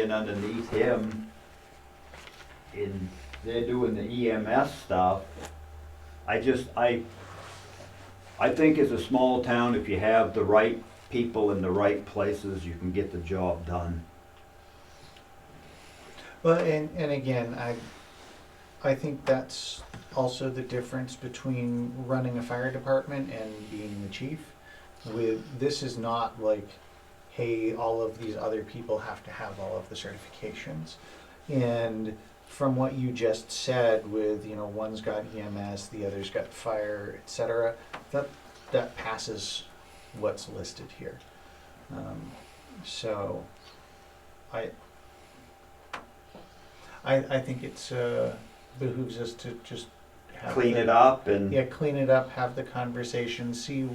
And underneath him, in, they're doing the EMS stuff. I just, I, I think as a small town, if you have the right people in the right places, you can get the job done. Well, and, and again, I, I think that's also the difference between running a fire department and being the chief. With, this is not like, hey, all of these other people have to have all of the certifications. And from what you just said with, you know, one's got EMS, the other's got fire, et cetera, that, that passes what's listed here. Um, So, I, I, I think it's, uh, behooves us to just have. Clean the- it up and, Yeah, clean it up, have the conversation, see,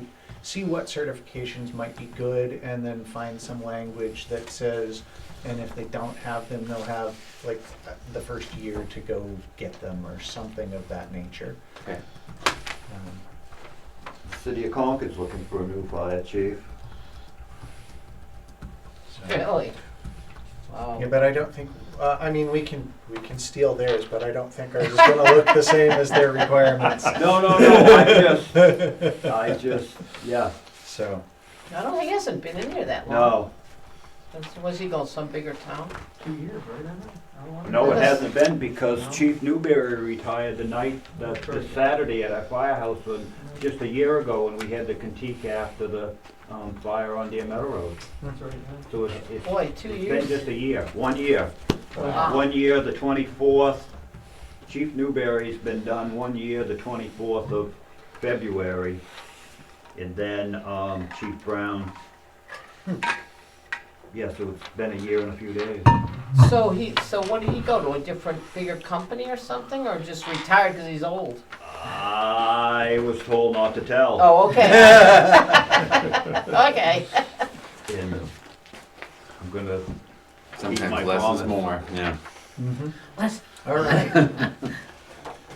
see what certifications might be good, and then find some language that says, and if they don't have them, they'll have, like, uh, the first year to go get them, or something of that nature. Okay. Um, City of Concord's looking for a new fire chief. so- Really? Wow. Yeah, but I don't think, uh, I mean, we can, we can steal theirs, but I don't think ours is gonna look the same as their requirements, No, no, no, I just, I just, yeah, so. I don't, he hasn't been in here that long. no, No. Was he going some bigger town? Two years, right? I don't know. no, it Because- hasn't been because Chief Newberry retired the night, the, the Saturday at our firehouse and just a year ago when we had the critique after the um, fire on Deer Meadow Road. So it's, it's Boy, two it's been just years. a year, one year. Wow. One year, the 24th, Chief Newberry's been done one year, the 24th of February. And then um, Chief Brown. Yeah, so it's been a year and a few days. So he, so what did he go to, a different, bigger company or something, or just retired because he's old? I was told not to tell. Oh, okay. Okay. And I'm gonna, my Sometimes less promise. is more, yeah. Mm-hmm. All right.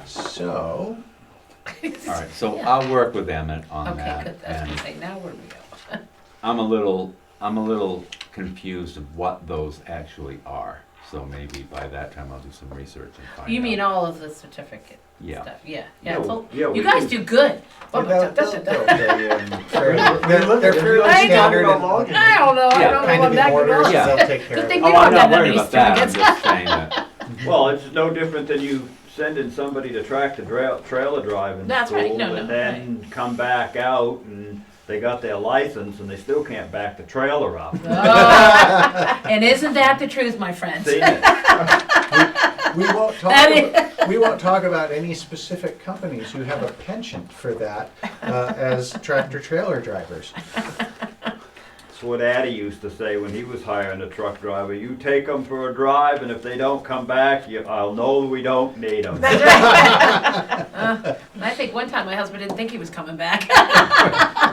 So, All right, so I'll work with Emmett on Okay, that. good, I was gonna and say, now where do we go? I'm a little, I'm a little confused of what those actually are. So maybe by that time I'll do some research and find out. You mean all of the certificate Yeah. stuff, yeah, yeah, No, it's all- yeah, we you guys can- do good. you But- know, da- they'll- da- they'll da- be, um, fairly- They're they're fairly I don't standard and I don't know, I Yeah, don't know kind what of that in could order, so be. Yeah. they'll take care Good of thing it. we Oh, don't I'm have not that worried many about that, I'm certificates. just saying that. Well, it's no different than you sending somebody to track the dra- trailer drive in That's right, school no, and no, then come back out and they got their license and they still can't back the trailer up. Oh, And isn't that the truth, my friends? See, I We won't talk, That about, we won't talk about any specific companies who have a penchant for that uh, as tractor trailer drivers. That's what Addy used to say when he was hiring a truck driver. You take them for a drive and if they don't come back, you, I'll know we don't need them. That's right. Uh, and I think one time my husband didn't think he was coming back.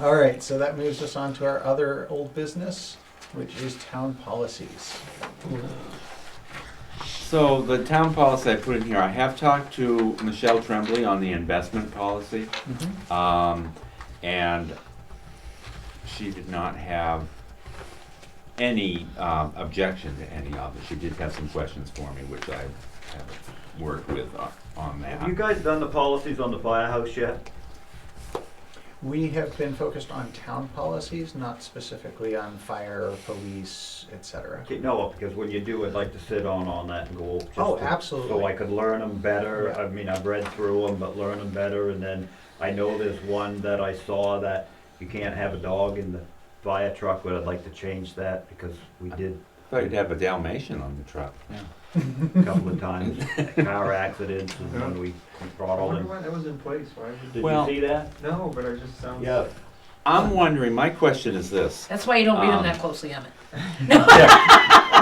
All right, so that moves us on to our other old business, which is town policies. So the town policy I put in here, I have talked to Michelle Tremblay on the investment policy. Mm-hmm. Um, and she did not have any um, objection to any of it. She did have some questions for me, which I have worked with on- on Have you that. guys done the policies on the firehouse yet? We have been focused on town policies, not specifically on fire, police, etc. Okay, No, because when you do, I'd like to sit on on that and go. over just Oh, to- So I absolutely. could learn them better. Yeah. I mean, I've read through them, but learn them better. And then I know there's one that I saw that you can't have a dog in the fire truck, but I'd like to change that because we did Thought you'd have a Dalmatian on the truck. a couple of times, car accidents and when we brought all wonder in. why that was in place, why, would- Did you Well- see that? no, but I just sounds. Yeah. I'm wondering, my question is this. That's why you don't read them Um, that closely, Emmett.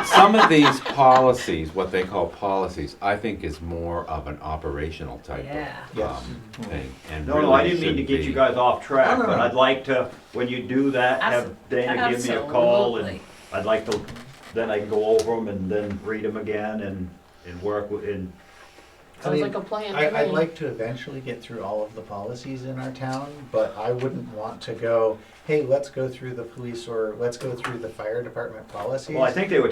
Some of these policies, what they call policies, I think is more of an operational type Yeah. of Yes. um, thing. and No, no, I really didn't mean to shouldn't get you be- guys off track, No, no, but no. I'd like to, when you do that, have Dana give me a call and Absolutely. I'd like to, then I can go over them and then read them again and, and work with, and Sounds like a plan I, to I'd me. like to eventually get through all of the policies in our town, but I wouldn't want to go, hey, let's go through the police or let's go through the fire department policies. Well, I think they were